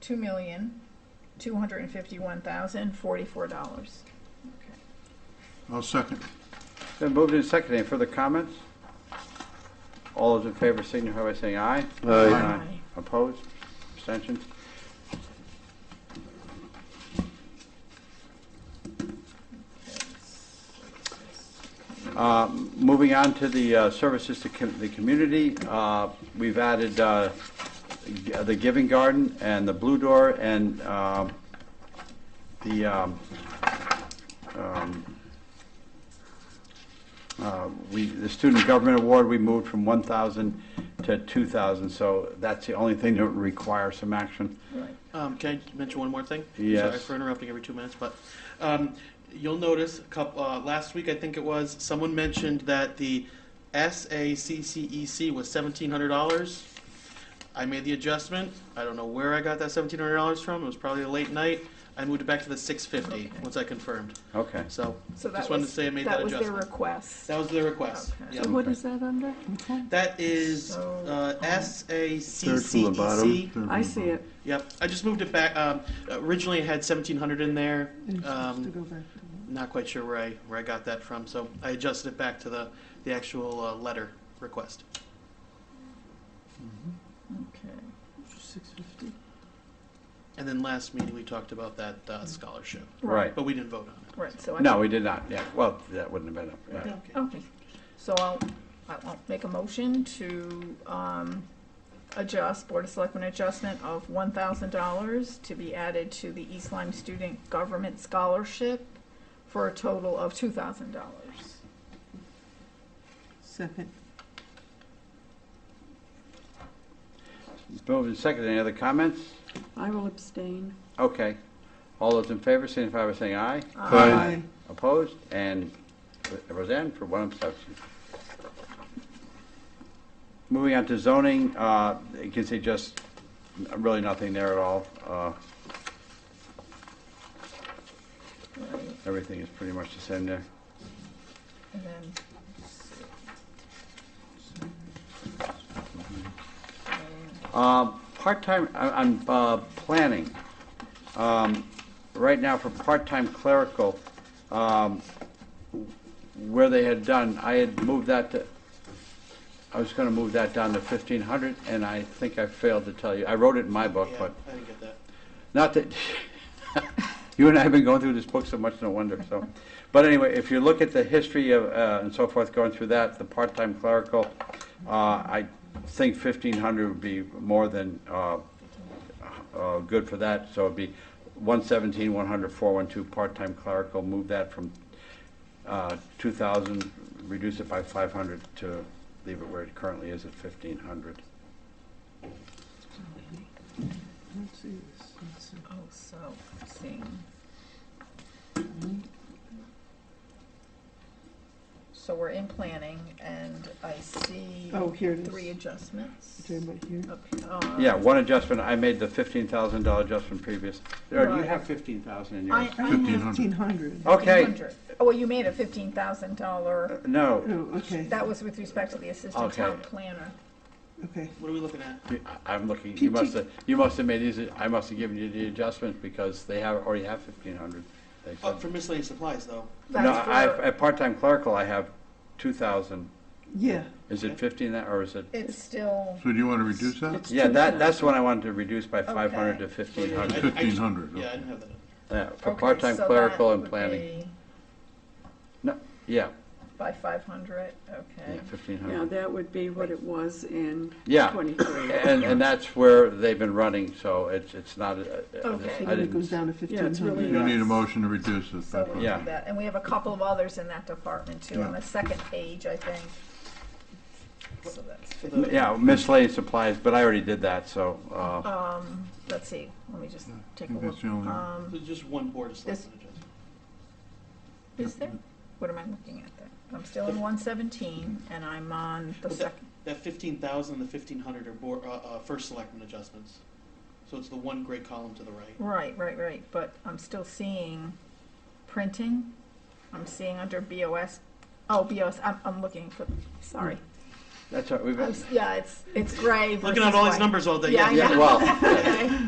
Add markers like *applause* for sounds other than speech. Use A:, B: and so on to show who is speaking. A: two million, two hundred and fifty-one thousand, forty-four dollars.
B: I'll second.
C: Then moved in second. Any further comments? All those in favor signify by saying aye.
B: Aye.
C: Opposed? Abstentions? Uh, Moving on to the uh, services to com- the community, uh, we've added uh, g- the Giving Garden and the Blue Door and um, the um, um, uh, we, the Student Government Award, we moved from 1,000 to 2,000, so that's the only thing that would require some action.
A: Right.
D: Um, can I mention one more thing?
C: Yes.
D: Sorry for interrupting every two minutes, but um, you'll notice a couple, uh, last week I think it was someone mentioned that the SACCEC E was seventeen hundred dollars. I made the adjustment. I don't know where I got that seventeen hundred dollars from. It was probably a late night. I moved it back to the six fifty
A: Okay.
D: once I confirmed.
C: Okay.
D: So
A: So that
D: just wanted to
A: was,
D: say I made
A: that
D: that
A: was their
D: adjustment.
A: request.
D: That was the request.
A: Okay.
D: Yeah.
A: So what is that under?
D: That is
A: So, um,
D: uh,
B: Third from the bottom.
D: SACCEC.
B: third
A: I
B: from
A: see
B: the
A: it.
D: E Yep, I just moved it back. Um, originally, it had seventeen hundred in there. Um, not quite sure where I where I got that from, so I adjusted it back to the the actual uh, letter request.
A: Okay.
D: And then last meeting, we talked about that uh, scholarship,
C: Right.
D: but we didn't vote on it.
A: Right, so I.
C: No, we did not, yeah, well, that wouldn't have been up. yeah.
D: Yeah.
A: Okay, so I'll, I'll make a motion to, um, adjust, Board of Selectmen adjustment of one thousand dollars to be added to the East Lyme Student Government Scholarship for a total of two thousand dollars.
E: Second.
C: Moved and seconded. Any other comments?
E: I will abstain.
C: Okay. All those in favor signify by saying aye.
B: Aye.
C: Opposed? And Roseanne for one abstention. Moving on to zoning, uh, you can see just really nothing there at all. Uh,
A: Right,
C: Everything is pretty much the same there.
A: and then.
C: Uh, Part-time, I- I'm uh, planning, um, right now for part-time clerical, um, where they had done, I had moved that to, I was going to move that down to 1,500, and I think I failed to tell you. I wrote it in my book,
D: Yeah,
C: Oh, but
D: I didn't get that.
C: not that, *laughs* you and I have been going through this book so much, no wonder, so. But anyway, if you look at the history of, uh, and so forth, going through that, the part-time clerical, uh, I think fifteen hundred would be more than, uh, uh, good for that, so it'd be one seventeen, one hundred, four one two, part-time clerical, move that from, uh, two thousand, reduce it by five hundred to leave it where it currently is at fifteen hundred.
A: Oh, so, seeing. So we're in planning, and I see
E: Oh, here it is.
A: three adjustments.
E: Doing right here.
A: Up- uh,
C: Yeah, one adjustment, I made the fifteen thousand dollar adjustment previous. Or do you
A: Right.
C: have fifteen thousand in
A: I,
C: yours?
A: I have
E: 1,500.
C: Okay,
A: 1,500. Oh, well, you made a fifteen thousand dollar,
E: Oh,
C: Uh, no,
E: okay,
A: that was with respect to the assistant
C: Okay.
A: town planner.
E: okay.
D: What are we looking at?
C: I- I'm looking, you must have, you must have made these, I must have given you the adjustment because they have, already have fifteen hundred.
D: Oh, for miscellaneous supplies, though.
C: No,
A: That's
C: I,
A: for,
C: at part-time clerical, I have two thousand.
E: Yeah,
C: Is it fifteen that, or is it?
A: it's still,
B: So do you want to reduce that?
E: It's-
C: Yeah, that, that's the one I wanted to reduce by five hundred to
D: Yeah,
C: fifteen
D: Oh, yeah, I- I just-
B: $1,500,
C: hundred.
D: Yeah, I
B: okay.
D: didn't have that.
C: Yeah, for
A: okay,
C: part-time
A: so that
C: clerical and
A: would
C: planning.
A: be
C: No, yeah,
A: By five hundred, okay.
C: yeah, fifteen
E: yeah,
C: hundred.
E: that would be what it was in
C: Yeah.
E: 23.
C: And, and that's where they've been running, so it's, it's not, a- a-
A: Okay.
C: I didn't,
E: down to
A: Yeah, it's really
B: You need a
A: Yes.
B: motion to reduce it.
A: So
B: by
A: we'll
B: five.
C: Yeah.
A: do that, and we have a couple of others in that department too, on the second page, I think. So that's,
D: For the-
C: yeah, miscellaneous supplies, but I already did that, so, uh.
A: um, let's see, let me just take a
B: think
A: look.
B: that's the only one.
A: Um,
D: Just one board of
A: This-
D: selectmen adjustment.
A: is there, what am I looking at there? I'm still in one seventeen, and I'm on the
D: But that-
A: second,
D: That fifteen thousand and the fifteen hundred are board, uh, uh, first selectmen adjustments. So it's the one gray column to the right.
A: right, right, right, but I'm still seeing printing. I'm seeing under BOS, oh, BOS, I'm, I'm looking for, sorry.
C: That's right, we've
A: I'm s- Yeah, it's, it's gray versus
D: Looking at all these
A: white.
D: numbers all day.
A: Yeah, I *laughs*
C: Yeah,
A: know.
C: well,
A: Okay.